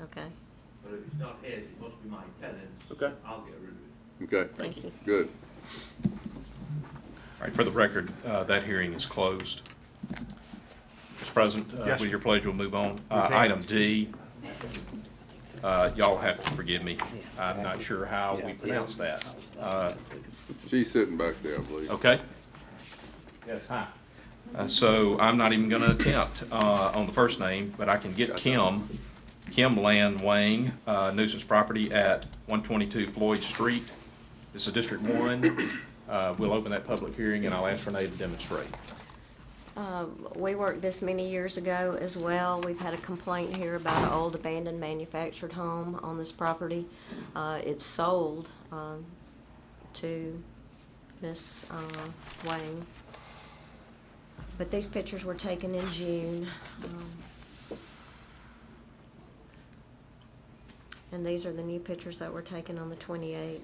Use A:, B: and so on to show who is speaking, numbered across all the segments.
A: Okay,
B: But if it's not his, it must be my tenant's.
C: Okay.
B: I'll get rid of it.
D: Okay,
A: thank you.
D: good.
E: All right, for the record, uh, that hearing is closed. Mr. President, uh,
C: Yes,
E: with
C: sir.
E: your pledge, we'll move on. Uh,
C: Okay.
E: Item D, uh, y'all have to forgive me. I'm not sure how we pronounce that. Uh,
D: She's sitting back there, I believe.
E: Okay? Yes, hi. Uh, So I'm not even going to attempt uh, on the first name, but I can get Kim, Kim Lan Wang, uh, nuisance property at 122 Floyd Street. This is District 1. Uh, We'll open that public hearing, and I'll ask Renee to demonstrate.
A: Um, We worked this many years ago as well. We've had a complaint here about an old abandoned manufactured home on this property. Uh, It's sold um, to Miss uh, Wayne. But these pictures were taken in June. um, And these are the new pictures that were taken on the 28th.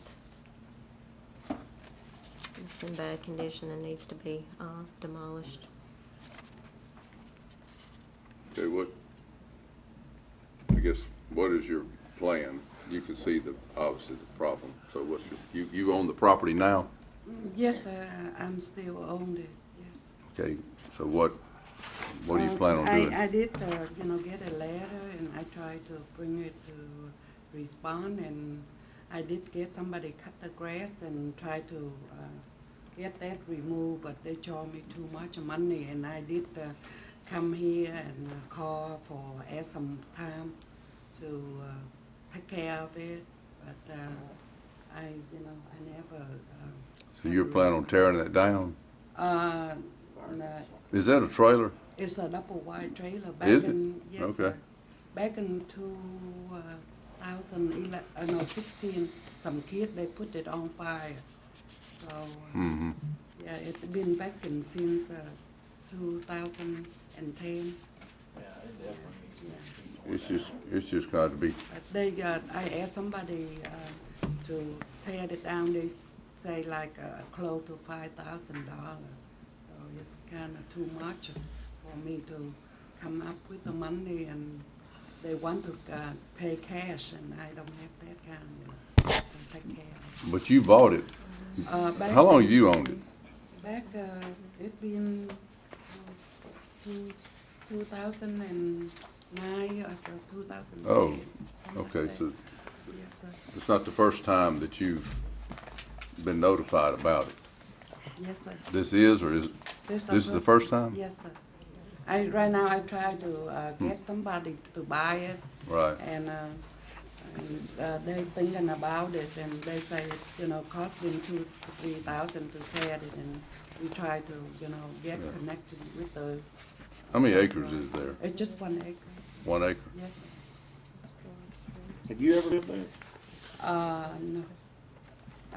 A: It's in bad condition and needs to be uh, demolished.
D: Okay, what, I guess, what is your plan? You can see the, obviously, the problem. So what's your, you, you own the property now?
F: Yes, sir, I- I'm still owned it. yes.
D: Okay, so what, what do you
F: Um,
D: plan on
F: I-
D: doing?
F: I did, uh, you know, get a letter and I tried to bring it to respond and I did get somebody cut the grass and try to uh, get that removed, but they charged me too much money and I did uh, come here and uh, call for, ask some time to uh, take care of it, but uh, I, you know, I never. uh,
D: So you're planning on tearing that down?
F: Uh, no,
D: Is that a trailer?
F: it's a double wide trailer back
D: Is it?
F: in yes,
D: Okay.
F: sir. back in two uh, thousand eleven uh, no sixteen some kid they put it on fire. So uh,
D: Mm-hmm.
F: yeah, it's been vacant since uh, two thousand and ten.
D: It's just, it's just got to be,
F: But they uh, I asked somebody uh, to tear it down. They say like uh, close to five thousand dollars. So it's kind of too much for me to come up with the money, and they want to uh, pay cash, and I don't have that kind of to take care. of.
D: but you bought it.
F: Uh, back-
D: How long you owned it?
F: Back uh, it been uh, two two thousand and nine or two thousand.
D: Oh, Okay, so
F: Yes, sir.
D: it's not the first time that you've been notified about it.
F: Yes, sir.
D: This is, or is, this is the first time?
F: Yes, sir. I, right now, I try to uh,
D: Hmm.
F: get somebody to buy it,
D: Right.
F: and, uh, and uh, they thinking about it, and they say, it's, you know, costing two, to three thousand to set it, and we try to, you know, get
D: Yeah.
F: connected with the.
D: How many acres is there?
F: It's just one acre,
D: One acre?
F: yes. sir.
C: Have you ever lived there?
F: Uh, no,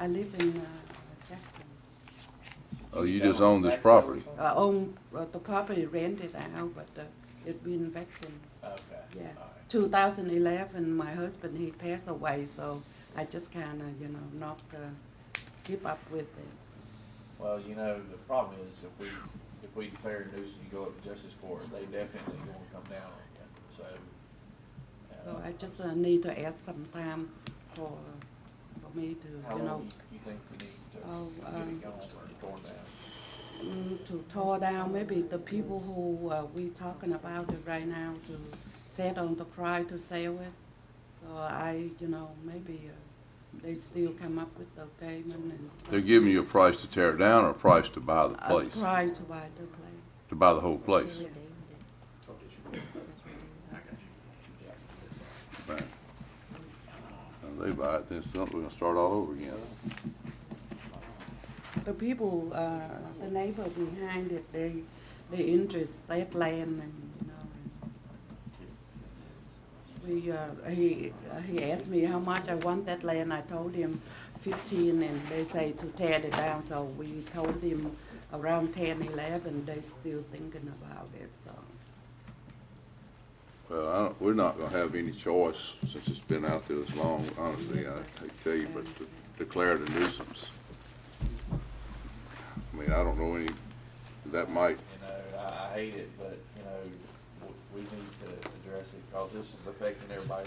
F: I live in uh, Jackson.
D: Oh, you just own this property?
F: I own, uh, the property rented out, but uh, it been vacant.
C: Okay.
F: Yeah, 2011, my husband, he passed away, so I just kind of, you know, not uh, keep up with it.
G: Well, you know, the problem is if we, if we declare a nuisance, you go up to justice court, they definitely gonna come down on you, so.
F: So
G: uh,
F: I just uh, need to ask some time for, for me to,
G: How
F: you know,
G: long you- you think we need to
F: Oh,
G: get
F: um,
G: it going or torn down?
F: mm, to tore down, maybe the people who uh, we talking about it right now to set on the price to sell it. So I, you know, maybe uh, they still come up with the payment and stuff.
D: They're giving you a price to tear it down or a price to buy the
F: A
D: place,
F: price to buy the place.
D: to buy the whole place?
A: Says redeemed it. Says redeemed it.
D: Right. Now they buy it, then it's something, we're gonna start all over again.
F: The people, uh, the neighbor behind it, they, they interest that land and, you know. We, uh, he, he asked me how much I want that land, I told him fifteen, and they say to tear it down, so we told him around ten, eleven, they still thinking about it, so.
D: Well, I don't, we're not gonna have any choice since it's been out there this long, honestly, I hate to tell you, but to declare it a nuisance. I mean, I don't know any, that might,
G: You know, I, I hate it, but, you know, w- we need to address it, cause this is affecting everybody